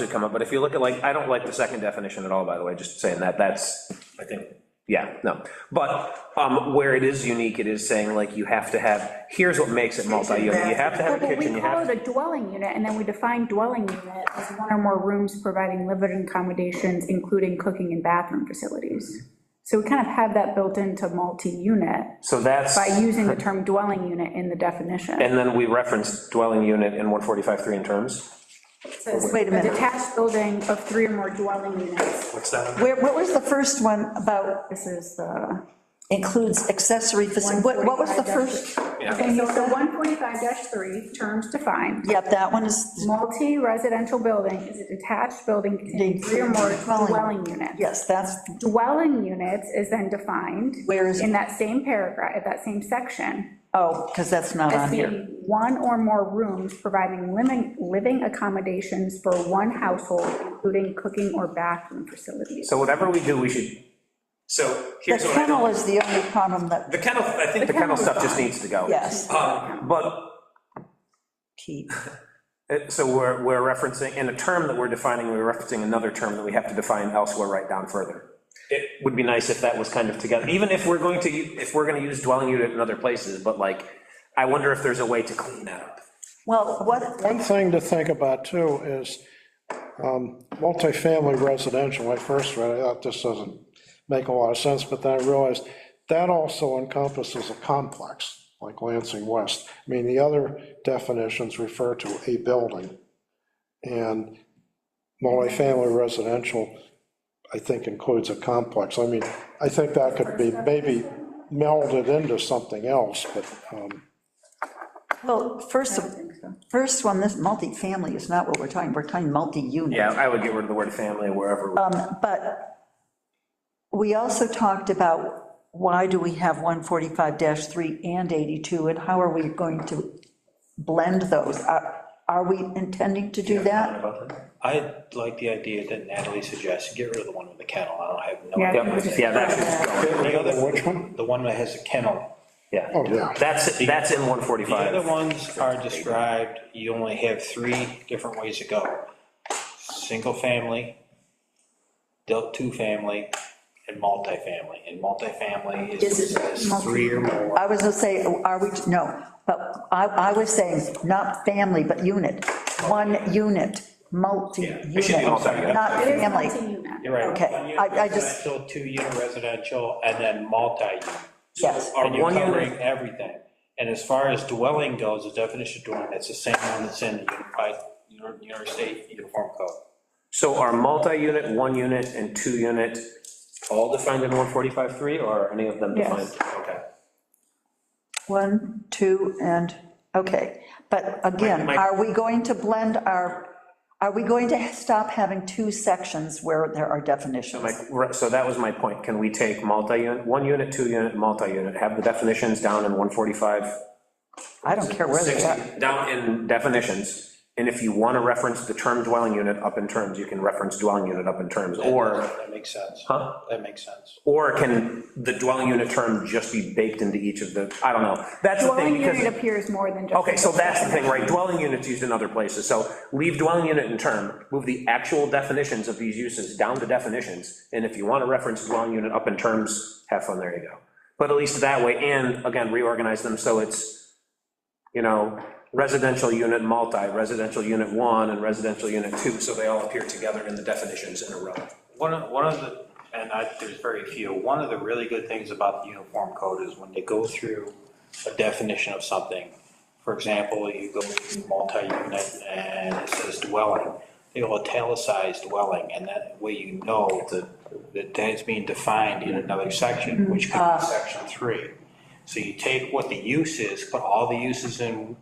should come up, but if you look at, like, I don't like the second definition at all, by the way, just saying that, that's, I think, yeah, no. But um, where it is unique, it is saying, like, you have to have, here's what makes it multi-unit, you have to have a But kitchen, we you call have, it a dwelling unit, and then we define dwelling unit as one or more rooms providing living accommodations, including cooking and bathroom facilities. So we kind of have that built into multi-unit so that's, by using the term dwelling unit in the definition. and then we referenced dwelling unit in 145.3 in terms. Wait a minute. Detached building of three or more dwelling units. What's that? Where, what was the first one about This is the. includes accessory facility? What, what was the 145-3. first? Okay, so the 145-3, terms defined. Yep, that one is, Multi-residential building is a detached building containing three or more Dwelling. dwelling units. yes, that's, Dwelling units is then defined. Where is it? In that same paragraph, at that same section, oh, because that's not as on here. being one or more rooms providing living, living accommodations for one household, including cooking or bathroom facilities. So whatever we do, we should, So The here's what I kennel know. is the only problem that, The kennel, I think, the kennel stuff just needs to go. Uh, yes, um, But keep. Uh, So we're, we're referencing, in a term that we're defining, we're referencing another term that we have to define elsewhere right down further. It would be nice if that was kind of together, even if we're going to, u- if we're gonna use dwelling unit in other places, but like, I wonder if there's a way to clean that up. Well, what, One thing to think about, too, is um, multifamily residential, when I first read it, I thought this doesn't make a lot of sense, but then I realized that also encompasses a complex, like Lansing West. I mean, the other definitions refer to a building, and multifamily residential, I think, includes a complex. I mean, I think that could be maybe melded into something else, but, um, well, first, of- first one, this multifamily is not what we're talking, we're talking multi-unit. Yeah, I would get rid of the word family wherever. we- But we also talked about why do we have 145-3 and 82, and how are we going to blend those? Are are we intending to do that? I like the idea that Natalie suggests, get rid of the one with the kennel, I don't have no. Yeah. idea. Yep, Yeah, that should go, The other- which one? The one that has a kennel. yeah. oh, yeah. That's, that's in The other 145. ones are described, you only have three different ways to go. Single family, del, two family, and multifamily. And multifamily Is is, it is three or more. I was gonna say, are we, no, but I, I was saying, not family, but unit, one unit, Yeah, I should do multi-unit, multi-unit. not It is family. multi-unit. You're right. Okay, One I- unit I just- residential, Two unit residential, and then multi-unit. Yes, Are And you're one unit- covering everything. And as far as dwelling goes, the definition of dwelling, that's the same one that's in the unified, New York State Uniform Code. So are multi-unit, one unit, and two unit all defined in 145.3, or are any of them defined? Yes. Okay. one, two, and, okay. But again, My- my- are we going to blend our, are we going to stop having two sections where there are definitions? Like, re- so that was my point, can we take multi-unit, one unit, two unit, multi-unit, have the definitions down in 145, I don't care where they are. 60, down in definitions, and if you want to reference the term dwelling unit up in terms, you can reference dwelling unit up in terms, or, That makes sense. Huh? That makes sense. or can the dwelling unit term just be baked into each of the, I don't know, that's the thing, Dwelling because. unit appears more than just. Okay, so that's the thing, right, dwelling units used in other places, so leave dwelling unit in term, move the actual definitions of these uses down to definitions, and if you want to reference dwelling unit up in terms, have fun, there you go. But at least that way, and again, reorganize them so it's, you know, residential unit multi, residential unit one, and residential unit two, so they all appear together in the definitions in a row. One of, one of the, and I, there's very few, one of the really good things about the uniform code is when they go through a definition of something, for example, you go to multi-unit and it says dwelling, they will italicize dwelling, and that way you know that, that that's being defined in another section, which could be section three. So you take what the use is, put all the uses in,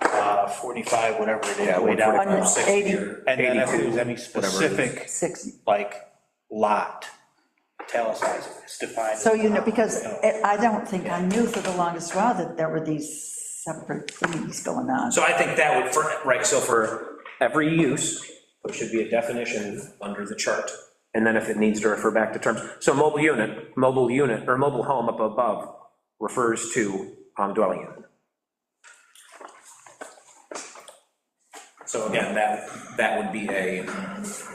uh, forty-five, whatever it is, way down. 145, 80. And then if there's 82, whatever any it is. specific Six. like lot, italicize it, it's defined. as So, you know, lot, because you know. I I don't think I knew for the longest while that there were these separate things going on. So I think that would, for, right, so for every use, there should be a definition under the chart. And then if it needs to refer back to terms, so mobile unit, mobile unit, or mobile home up above refers to um, dwelling unit. So again, that, that would be a